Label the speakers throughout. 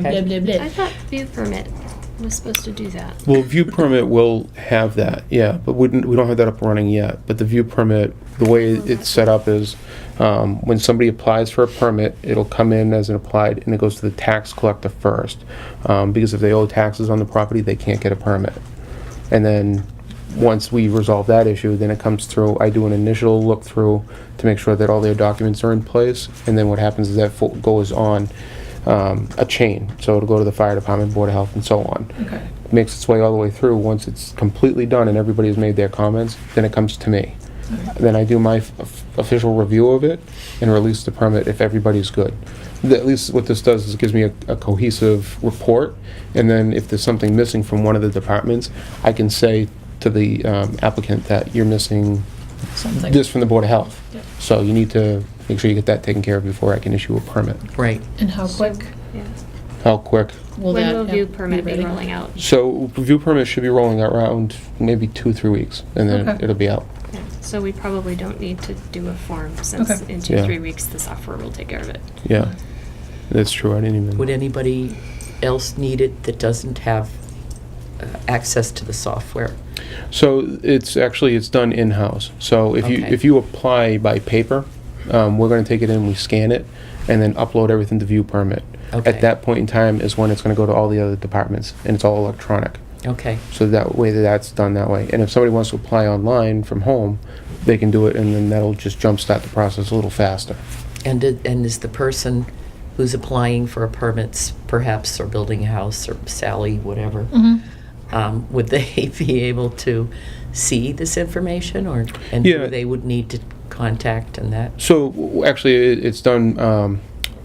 Speaker 1: blah, blah, blah.
Speaker 2: I thought view permit was supposed to do that.
Speaker 3: Well, view permit will have that, yeah, but we didn't, we don't have that up and running yet. But the view permit, the way it's set up is, um, when somebody applies for a permit, it'll come in as an applied, and it goes to the tax collector first. Um, because if they owe taxes on the property, they can't get a permit. And then, once we resolve that issue, then it comes through, I do an initial look-through to make sure that all their documents are in place, and then what happens is that fo- goes on, um, a chain. So it'll go to the fire department, board of health, and so on
Speaker 1: Okay.
Speaker 3: makes its way all the way through, once it's completely done and everybody's made their comments, then it comes to me. Then I do my f- f- official review of it and release the permit if everybody's good. Th- At least what this does is it gives me a a cohesive report, and then if there's something missing from one of the departments, I can say to the um, applicant that you're missing
Speaker 1: Something.
Speaker 3: this from the Board of Health.
Speaker 1: Yep.
Speaker 3: So you need to make sure you get that taken care of before I can issue a permit.
Speaker 4: Right.
Speaker 1: And how quick
Speaker 2: Yeah.
Speaker 3: How quick?
Speaker 1: will
Speaker 2: When
Speaker 1: that?
Speaker 2: will
Speaker 1: uh,
Speaker 2: view permit be
Speaker 1: ready?
Speaker 2: rolling out?
Speaker 3: So review permit should be rolling out around maybe two, three weeks, and then
Speaker 1: Okay.
Speaker 3: it'll be out.
Speaker 2: Yeah. So we probably don't need to do a form since
Speaker 1: Okay.
Speaker 2: in two,
Speaker 3: Yeah.
Speaker 2: three weeks, the software will take care of it.
Speaker 3: Yeah, that's true. I didn't even.
Speaker 4: Would anybody else need it that doesn't have uh, access to the software?
Speaker 3: So it's actually it's done in house. So if you
Speaker 4: Okay.
Speaker 3: if you apply by paper, um, we're going to take it in, we scan it, and then upload everything to view permit.
Speaker 4: Okay.
Speaker 3: At that point in time is when it's going to go to all the other departments, and it's all electronic.
Speaker 4: Okay,
Speaker 3: So that way that that's done that way. And if somebody wants to apply online from home, they can do it, and then that'll just jumpstart the process a little faster.
Speaker 4: and, did- and is the person who's applying for a permit, perhaps, or building a house, or Sally, whatever,
Speaker 1: Mhm.
Speaker 4: um, would they be able to see this information, or, and who
Speaker 3: Yeah.
Speaker 4: they would need to contact and that?
Speaker 3: So w- w- actually, it- it's done um,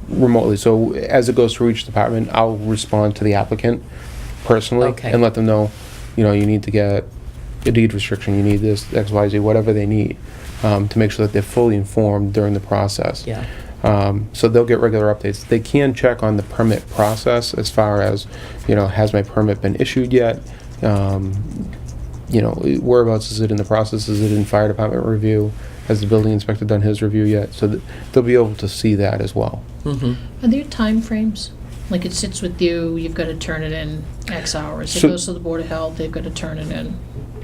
Speaker 3: remotely. So as it goes through each department, I'll respond to the applicant personally
Speaker 4: Okay.
Speaker 3: and let them know, you know, you need to get a deed restriction, you need this, X, Y, Z, whatever they need, um, to make sure that they're fully informed during the process.
Speaker 4: Yeah,
Speaker 3: Um, So they'll get regular updates. They can check on the permit process as far as, you know, has my permit been issued yet? Um, You know, whereabouts is it in the process? Is it in fire department review? Has the building inspector done his review yet? So th- they'll be able to see that as well.
Speaker 4: mm-hmm,
Speaker 1: Are there timeframes? Like it sits with you, you've got to turn it in X hours. It
Speaker 3: So-
Speaker 1: goes to the Board of Health, they've got to turn it in.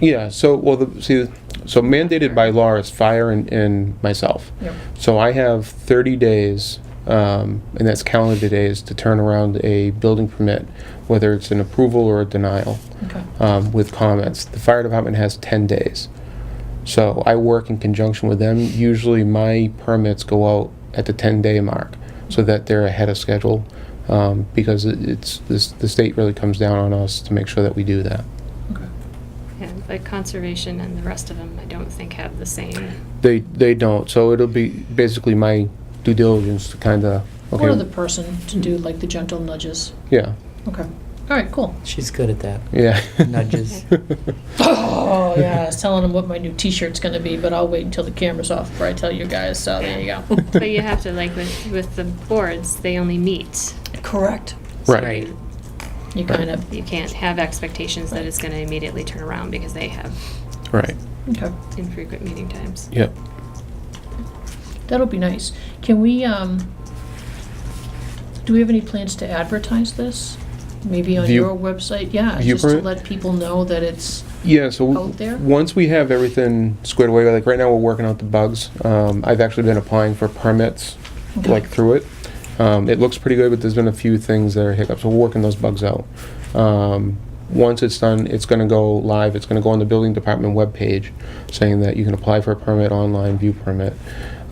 Speaker 3: Yeah, so, well, the, see, so mandated by law is fire and, and myself.
Speaker 1: Yep.
Speaker 3: So I have 30 days, um, and that's calendar days, to turn around a building permit, whether it's an approval or a denial.
Speaker 1: Okay.
Speaker 3: um, with comments. The fire department has 10 days. So I work in conjunction with them. Usually my permits go out at the 10 day mark so that they're ahead of schedule um, because it- it's this, the state really comes down on us to make sure that we do that.
Speaker 1: Okay.
Speaker 2: And but conservation and the rest of them, I don't think have the same.
Speaker 3: They, they don't. So it'll be basically my due diligence to kind of, okay,
Speaker 1: Or the person to do like the gentle nudges.
Speaker 3: yeah,
Speaker 1: Okay. All right, cool.
Speaker 4: she's good at that.
Speaker 3: yeah.
Speaker 4: Nudges.
Speaker 1: Oh, yeah, I was telling them what my new t-shirt's gonna be, but I'll wait until the camera's off before I tell you guys, so there you go.
Speaker 2: But you have to, like with, with the boards, they only meet.
Speaker 1: Correct.
Speaker 3: Right.
Speaker 1: You kind of,
Speaker 2: You can't have expectations that it's gonna immediately turn around because they have
Speaker 3: Right.
Speaker 1: okay,
Speaker 2: infrequent meeting times.
Speaker 3: Yep.
Speaker 1: that'll be nice. Can we, um, do we have any plans to advertise this? Maybe on
Speaker 3: View-
Speaker 1: your website, yeah,
Speaker 3: View
Speaker 1: just to
Speaker 3: print?
Speaker 1: let people know that it's,
Speaker 3: Yeah, so w-
Speaker 1: out there?
Speaker 3: once we have everything squared away, like right now we're working out the bugs. Um, I've actually been applying for permits,
Speaker 1: Okay.
Speaker 3: like through it. Um, it looks pretty good, but there's been a few things that are hiccups. We're working those bugs out. Um, once it's done, it's going to go live. It's going to go on the building department webpage, saying that you can apply for a permit online, view permit,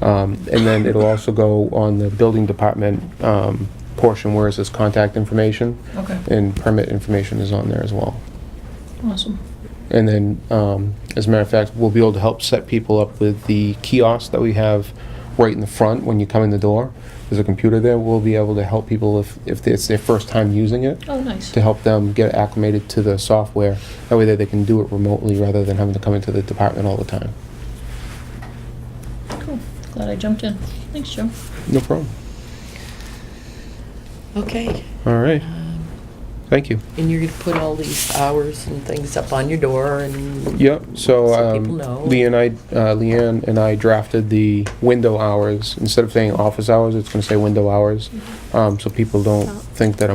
Speaker 3: um, and then it'll also go on the building department um, portion where it says contact information,
Speaker 1: okay,
Speaker 3: and permit information is on there as well.
Speaker 1: awesome.
Speaker 3: And then, um, as a matter of fact, we'll be able to help set people up with the kiosk that we have right in the front when you come in the door. There's a computer there. We'll be able to help people if, if it's their first time using it,
Speaker 1: Oh, nice.
Speaker 3: to help them get acclimated to the software. That way that they can do it remotely rather than having to come into the department all the time.
Speaker 1: Cool, glad I jumped in. Thanks, Joe.
Speaker 3: No problem.
Speaker 4: Okay.
Speaker 3: All right.
Speaker 4: Um,
Speaker 3: Thank you.
Speaker 4: And you're gonna put all these hours and things up on your door and?
Speaker 3: Yep, so,
Speaker 4: So
Speaker 3: um,
Speaker 4: people know.
Speaker 3: Lee and I, uh, Leanne and I drafted the window hours. Instead of saying office hours, it's gonna say window hours. Um, so people don't
Speaker 2: Oh.
Speaker 3: think that